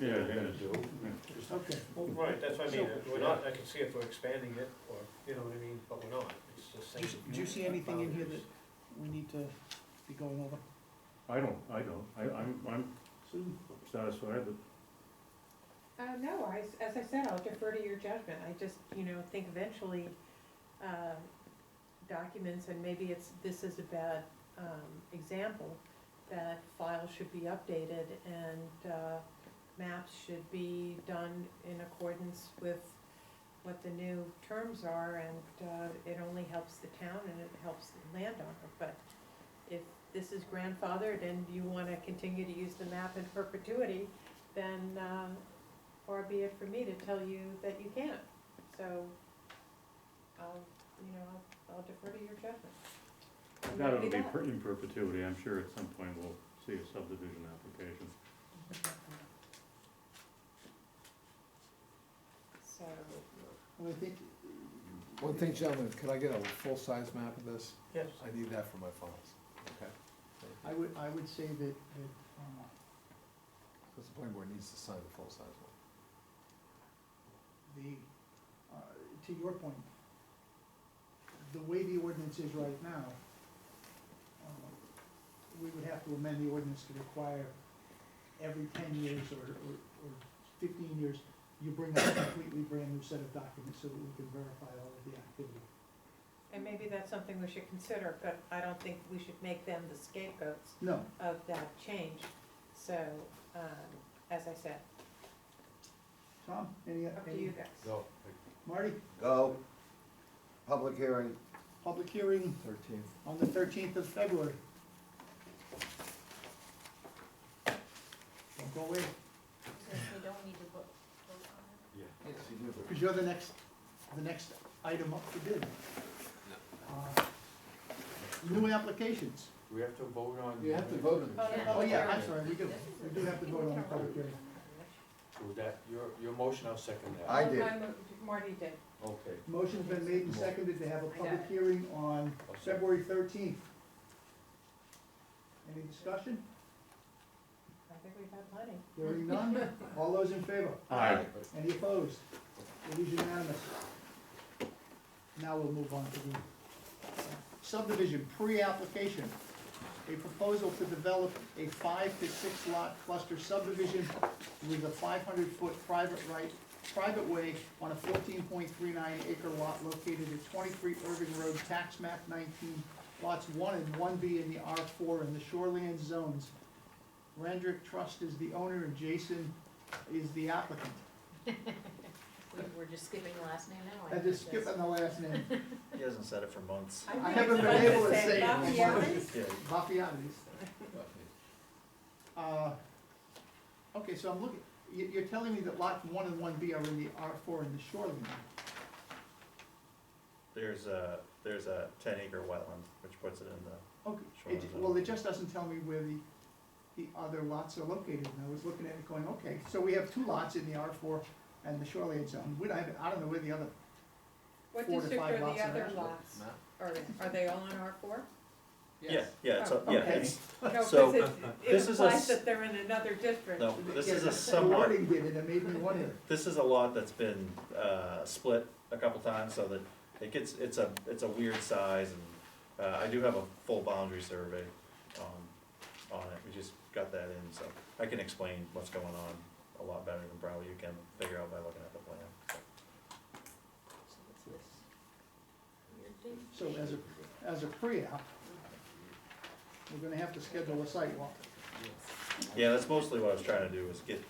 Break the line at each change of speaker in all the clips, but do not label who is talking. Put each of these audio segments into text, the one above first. Yeah, yeah.
Okay,
Well, Right, that's what I mean, we're not, I can see if we're expanding it, or, you know what I mean, but we're not, it's just
do you,
saying.
s- do you see anything in here that we need to be going over?
I don't, I don't, I, I'm, I'm satisfied, but
Uh, no, I, as I said, I'll defer to your judgment, I just, you know, think eventually, uh, documents, and maybe it's, this is a bad, um, example, that files should be updated and, uh, maps should be done in accordance with what the new terms are, and, uh, it only helps the town and it helps the landowner, but if this is grandfathered and you wanna continue to use the map in perpetuity, then, uh, or be it for me to tell you that you can't. So, I'll, you know, I'll- I'll defer to your judgment. And
that
that'd
will be
that.
per- in perpetuity, I'm sure at some point we'll see a subdivision application.
So,
And I think,
One thing, gentlemen, could I get a full-size map of this?
Yes,
I need that for my files. Okay.
I would, I would say that, that, um,
Because the planning board needs to sign the full-size one.
the, uh, to your point, the way the ordinance is right now, uh, we would have to amend the ordinance to require every ten years or, or, or fifteen years, you bring up a completely brand-new set of documents so that we can verify all of the activity.
and maybe that's something we should consider, but I don't think we should make them the scapegoats
No,
of that change. So, um, as I said,
Tom, any,
up to
any,
you guys.
Go.
Marty,
Go, public hearing,
public hearing
Thirteenth.
on the thirteenth of February. Don't go away,
we don't need to vote, vote on it.
yes, you do.
because you're the next, the next item up for bid. Uh, New applications.
We have to vote on.
You have to vote on this.
Oh, yeah, I'm sorry, we do, we do have to vote on the public hearing.
Well, that, your, your motion, I'll second that.
I did.
Oh, no, Marty did.
Okay,
Motion's been made and seconded to have a public hearing on
I'll second.
February thirteenth. Any discussion?
I think we've had plenty.
Hearing none, all those in favor?
Aye.
Any opposed? It is unanimous. Now we'll move on to the subdivision pre-application. A proposal to develop a five to six lot cluster subdivision with a five hundred foot private right, private way on a fourteen point three nine acre lot located at twenty-three Irving Road, tax map nineteen, lots one and one B in the R four in the shoreland zones. Randrick Trust is the owner and Jason is the applicant.
We- We're just skipping the last name now.
I just skip on the last name,
He hasn't said it for months.
I
think
haven't
it's
been
about
able to
same.
say it.
About the others?
Yeah.
Bafianis. Uh, Okay, so I'm looking, you, you're telling me that lot one and one B are in the R four in the shoreline.
There's a, there's a ten acre wetland, which puts it in the,
Okay, it,
Shoreline
ju-
zone.
well, it just doesn't tell me where the, the other lots are located, and I was looking at it going, okay, so we have two lots in the R four and the shoreline zone, we don't, have- I don't know where the other,
What
Four to
district
five
are
lots
the
in
other
that.
lots? Are, are they all in R four?
yeah, yeah, it's, a- yeah,
Oh, Okay.
it's,
No, because
So, uh,
it- it
this is a
implies
s-
that they're in another district.
no, this is
Yeah,
a
the
somewhat,
wording did it, it made me wonder.
this is a lot that's been, uh, split a couple times, so that it gets, it's a, it's a weird size, and, uh, I do have a full boundary survey, um, on it, we just got that in, so I can explain what's going on a lot better than probably you can figure out by looking at the plan.
So as a, as a pre-app, we're gonna have to schedule a site walk.
Yeah, that's mostly what I was trying to do, was get,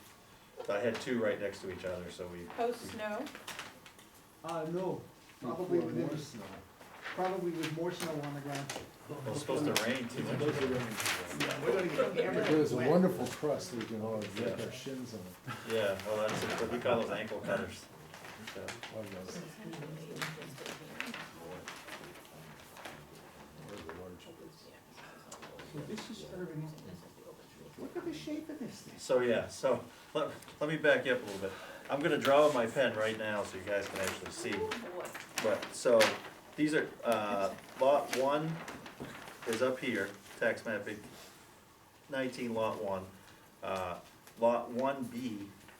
I had two right next to each other, so we,
Post snow,
Uh, no, probably within, probably with more snow on the ground.
well, it's supposed to rain too much.
Yeah, we're gonna get
There's a
wet.
wonderful crust we can all get our shins on.
Yeah, well, that's, it, but we call those ankle cutters. So,
Love those.
So this is Irving, look at the shape of this thing.
So, yeah, so, let, let me back you up a little bit. I'm gonna draw with my pen right now, so you guys can actually see. But, so, these are, uh, lot one is up here, tax mapping, nineteen lot one. Uh, lot one B